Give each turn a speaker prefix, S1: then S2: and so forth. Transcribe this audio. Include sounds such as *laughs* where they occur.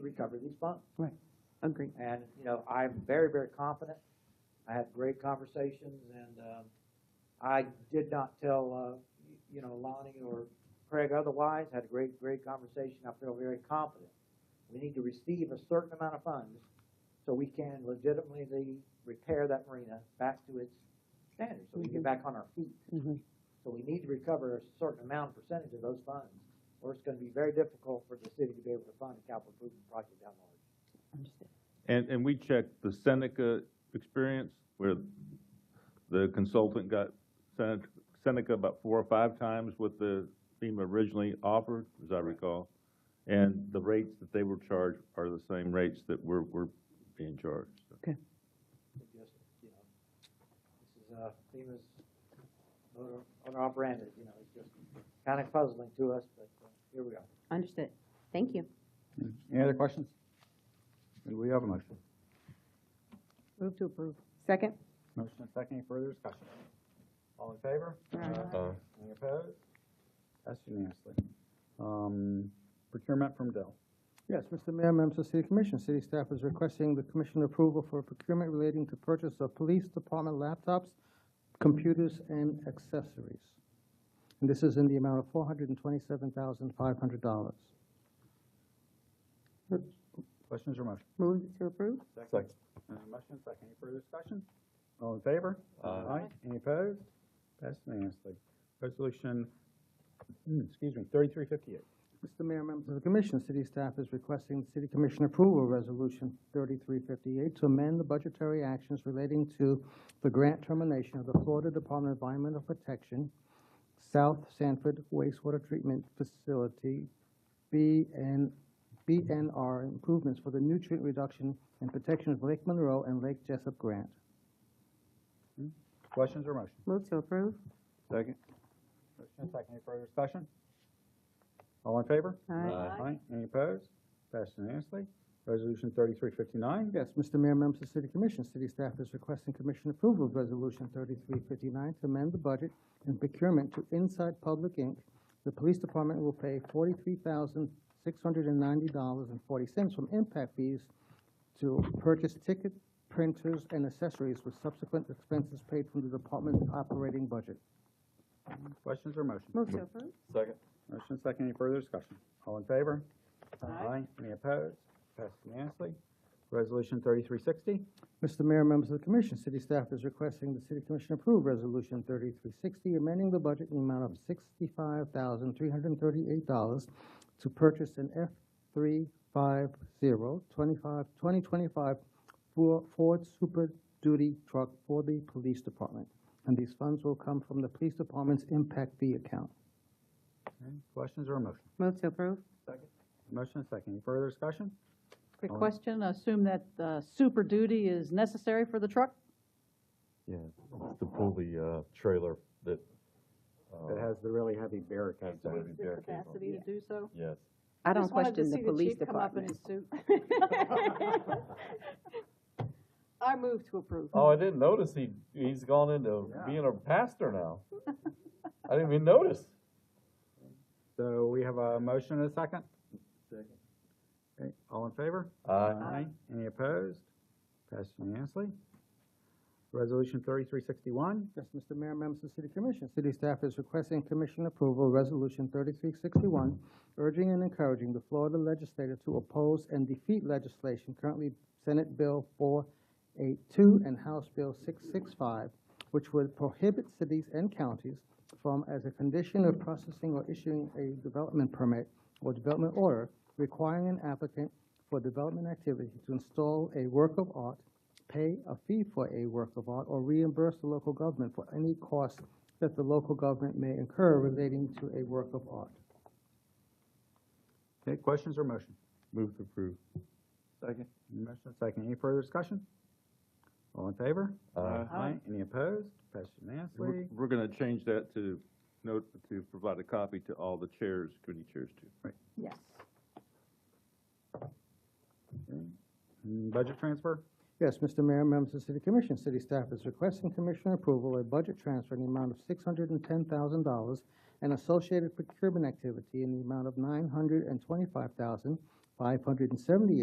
S1: recover these funds.
S2: Agree.
S1: And, you know, I'm very, very confident. I had great conversations and, um, I did not tell, uh, y- you know, Lonnie or Craig otherwise, had a great, great conversation. I feel very confident. We need to receive a certain amount of funds so we can legitimately repair that marina back to its standards, so we can get back on our feet.
S2: Mhm.
S1: So we need to recover a certain amount, percentage of those funds, or it's gonna be very difficult for the city to be able to fund a capital improvement project down the road.
S2: Understood.
S3: And, and we checked the Seneca experience where the consultant got Seneca, Seneca about four or five times what the FEMA originally offered, as I recall. And the rates that they were charged are the same rates that we're, we're being charged.
S1: It just, you know, this is, uh, FEMA's owner, owner operated, you know, it's just kinda puzzling to us, but uh, here we are.
S2: Understood. Thank you.
S4: Any other questions? Do we have a motion?
S2: Move to approve. Second?
S4: Motion and second, any further discussion? All in favor?
S2: Aye.
S5: Uh,
S4: Any opposed? That's unanimously. Um, procurement from Dell.
S6: Yes, Mr. Mayor, members of the City Commission, city staff is requesting the commission approval for procurement relating to purchase of police department laptops, computers, and accessories. And this is in the amount of four hundred and twenty-seven thousand, five hundred dollars.
S4: Questions or motion?
S2: Move to approve?
S4: Second. Uh, motion and second, any further discussion? All in favor? Aye. Any opposed? That's unanimously. Resolution, mm, excuse me, thirty-three fifty-eight.
S6: Mr. Mayor, members of the commission, city staff is requesting the city commission approval of resolution thirty-three fifty-eight to amend the budgetary actions relating to the grant termination of the Florida Department of Environmental Protection, South Sanford Wastewater Treatment Facility, B and, BNR improvements for the nutrient reduction and protection of Lake Monroe and Lake Jessup Grant.
S4: Questions or motion?
S2: Move to approve?
S4: Second. Motion and second, any further discussion? All in favor? Aye. Any opposed? Passed unanimously. Resolution thirty-three fifty-nine.
S6: Yes, Mr. Mayor, members of the City Commission, city staff is requesting commission approval of Resolution thirty-three fifty-nine to amend the budget and procurement to Inside Public Inc. The police department will pay forty-three thousand, six hundred and ninety dollars and forty cents from impact fees to purchase ticket printers and accessories with subsequent expenses paid from the department's operating budget.
S4: Questions or motion?
S2: Move to approve?
S4: Second. Motion second, any further discussion? All in favor? Aye. Any opposed? Passed unanimously. Resolution thirty-three sixty.
S6: Mr. Mayor, members of the commission, city staff is requesting the city commission approve Resolution thirty-three sixty, amending the budget in the amount of sixty-five thousand, three hundred and thirty-eight dollars to purchase an F three five zero twenty-five, twenty twenty-five Ford Super Duty truck for the police department. And these funds will come from the police department's impact fee account.
S4: Questions or a motion?
S2: Move to approve?
S4: Motion second, any further discussion?
S7: Quick
S4: All right.
S7: question, assume that uh, Super Duty is necessary for the truck?
S5: Yeah, it's to pull the, uh, trailer that,
S4: That
S5: uh,
S4: has the really heavy barricades on
S5: What's
S4: it.
S5: the
S7: The
S5: barricade on
S7: capacity to do so?
S5: yes.
S2: I don't
S7: Just wanted to
S2: question the
S7: see
S2: police
S7: chief come up in
S2: department.
S7: his suit.
S2: *laughs*
S7: *laughs* I move to approve.
S5: Oh, I didn't notice he, he's gone into being a pastor now. I didn't even notice.
S4: So we have a motion and a second? Second. Okay, all in favor?
S5: Uh,
S4: Any opposed? Passed unanimously. Resolution thirty-three sixty-one.
S6: Yes, Mr. Mayor, members of the City Commission, city staff is requesting commission approval, of Resolution thirty-three sixty-one, urging and encouraging the Florida legislature to oppose and defeat legislation currently Senate Bill four eight two and House Bill six six five, which would prohibit cities and counties from, as a condition of processing or issuing a development permit or development order, requiring an applicant for development activity to install a work of art pay a fee for a work of art or reimburse the local government for any cost that the local government may incur relating to a work of art.
S4: Okay, questions or motion?
S3: Move to approve.
S4: Second. Motion and second. Any further discussion? All in favor?
S5: Aye.
S4: Any opposed? Passed unanimously.
S3: We're, we're gonna change that to note, to provide a copy to all the chairs, committee chairs too.
S7: Yes.
S4: Mm, Budget transfer?
S6: Yes, Mr. Mayor, members of the City Commission, city staff is requesting Commissioner approval of a budget transfer in the amount of six hundred and ten thousand dollars and associated procurement activity in the amount of nine hundred and twenty-five thousand, five hundred and seventy-eight